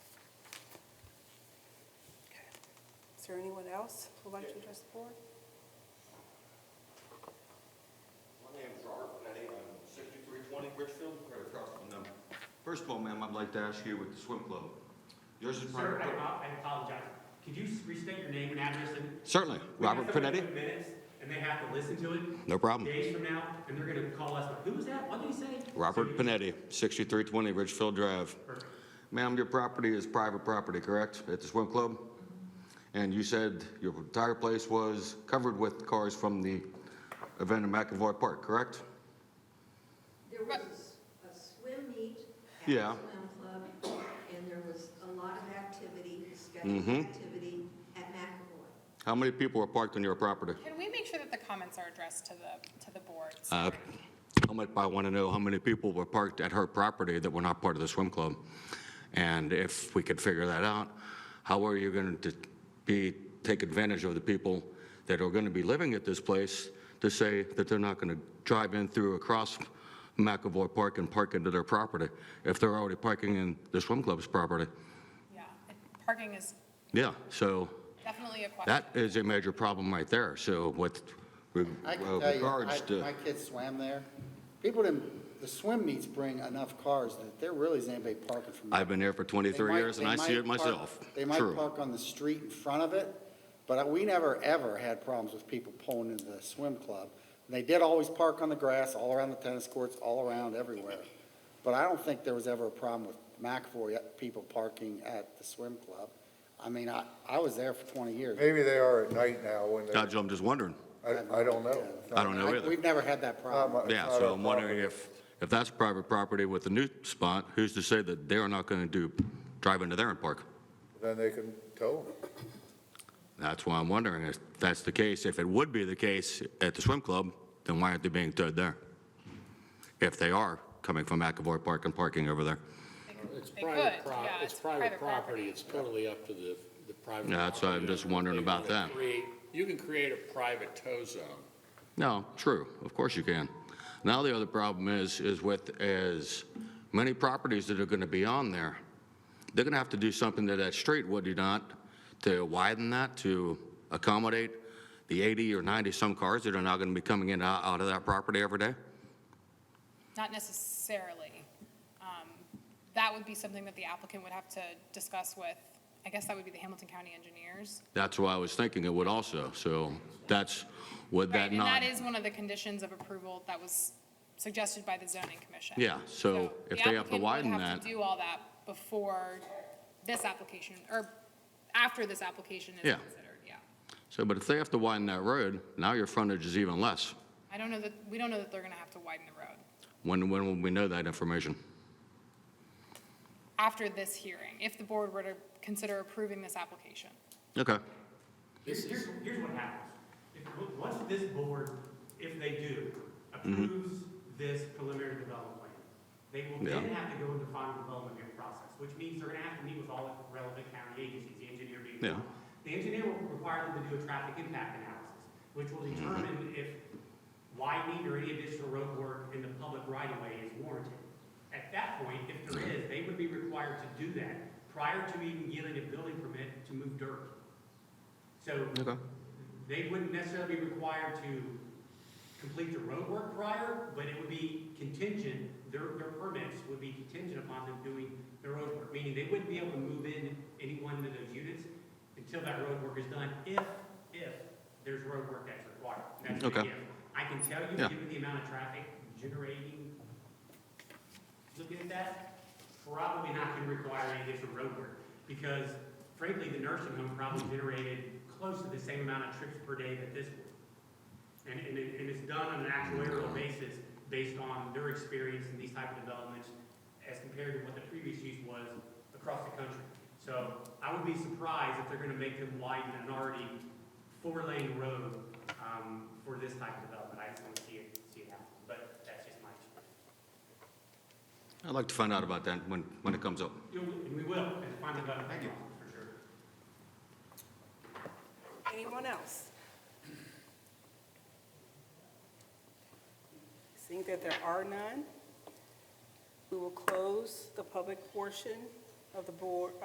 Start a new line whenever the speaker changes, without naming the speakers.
there anyone else who'd like to address the board?
My name is Robert Benetti, I'm 6320 Richfield, right across from them. First of all, ma'am, I'd like to ask you with the swim club. Yours is
Sir,
private.
I apo- I apologize. Could you restate your name and address? and-
Certainly,
We have
Robert
to put it in
Panetti. Um,
Minutes, and they have to listen to it
No problem.
days from now, and they're gonna call us, like, who was that? What did he say?
Robert
So you-
Panetti, 6320 Richfield Drive.
Perfect.
Ma'am, your property is private property, correct, at the swim club? And you said your entire place was covered with cars from the event in McAvoy Park, correct?
There was a s- a swim meet at
Yeah.
the swim club, and there was a lot of activity, scheduled
Mhm.
activity at McAvoy.
How many people were parked on your property?
Can we make sure that the comments are addressed to the, to the board?
Uh, How much, I want to know how many people were parked at her property that were not part of the swim club? And if we could figure that out, how are you going to be, take advantage of the people that are going to be living at this place to say that they're not going to drive in through across McAvoy Park and park into their property if they're already parking in the swim club's property?
Yeah, parking is
Yeah, so
definitely a question.
that is a major problem right there. So with re- uh,
I can tell you,
regards
I-
to,
my kids swam there. People didn't, the swim meets bring enough cars that there really isn't anybody parking from.
I've been here for 23 years and I see it myself.
They might
True.
park on the street in front of it, but we never, ever had problems with people pulling into the swim club. And They did always park on the grass, all around the tennis courts, all around, everywhere. But I don't think there was ever a problem with McAvoy people parking at the swim club. I mean, I, I was there for 20 years.
Maybe they are at night now when they,
That's what I'm just wondering.
I, I don't know.
I don't know
I-
either.
We've never had that problem.
Not my-
Yeah,
not
so
our
I'm wondering
problem.
if, if that's private property with the new spot, who's to say that they're not going to do, drive into there and park?
Then they can tow them.
That's why I'm wondering if that's the case. If it would be the case at the swim club, then why aren't they being towed there? If they are coming from McAvoy Park and parking over there.
It's
They could,
private, pro-
yeah,
it's private property, it's totally up to the, the private.
Yeah, that's what I'm
property
just
owner.
wondering
They
about
wanna
that.
create- You can create a private tow zone.
No, true, of course you can. Now the other problem is, is with as many properties that are going to be on there, they're going to have to do something to that street, would you not, to widen that, to accommodate the 80 or 90-some cars that are now going to be coming in and out out of that property every day?
Not necessarily. Um, That would be something that the applicant would have to discuss with, I guess that would be the Hamilton County engineers.
That's why I was thinking it would also, so that's, would
Right,
that
and
not?
that is one of the conditions of approval that was suggested by the zoning commission.
Yeah, so if
the
they have to
applicant would
widen
have to
that-
Do all that before this application, or after this application is
Yeah.
considered, yeah.
So, but if they have to widen that road, now your frontage is even less.
I don't know that, we don't know that they're gonna have to widen the road.
When, when will we know that information?
after this hearing, if the board were to consider approving this application.
Okay.
Here's, here's, here's what happens. If, w- once this board, if they do,
Mm-hmm.
approves this preliminary development plan, they will then
Yeah.
have to go into final development review process, which means they're gonna have to meet with all the relevant county agencies, the engineer being
Yeah.
one. The engineer will require them to do a traffic impact analysis, which will
Mm-hmm.
determine if widening or any additional road work in the public right-of-way is warranted. At that point, if there is, they would be required to do that prior to even getting a building permit to move dirt. So
Okay.
they wouldn't necessarily be required to complete the roadwork prior, but it would be contingent, their, their permits would be contingent upon them doing the roadwork, meaning they wouldn't be able to move in any one of those units until that roadwork is done, if, if there's roadwork that's required. That's the
Okay.
if. I can tell you,
Yeah.
given the amount of traffic generating, looking at that, probably not gonna require any additional roadwork, because frankly, the nursing home probably generated close to the same amount of trips per day that this would. And, and, it- and it's done on an actuarial basis, based on their experience in these type of developments, as compared to what the previous use was across the country. So I would be surprised if they're gonna make them widen an already four-lane road, um, for this type of development. I just don't see it, see it happen, but that's just my experience.
I'd like to find out about that when, when it comes up.
You know, and we will, and find out about it, thank you, for sure.
Anyone else? Seeing that there are none, we will close the public portion of the board,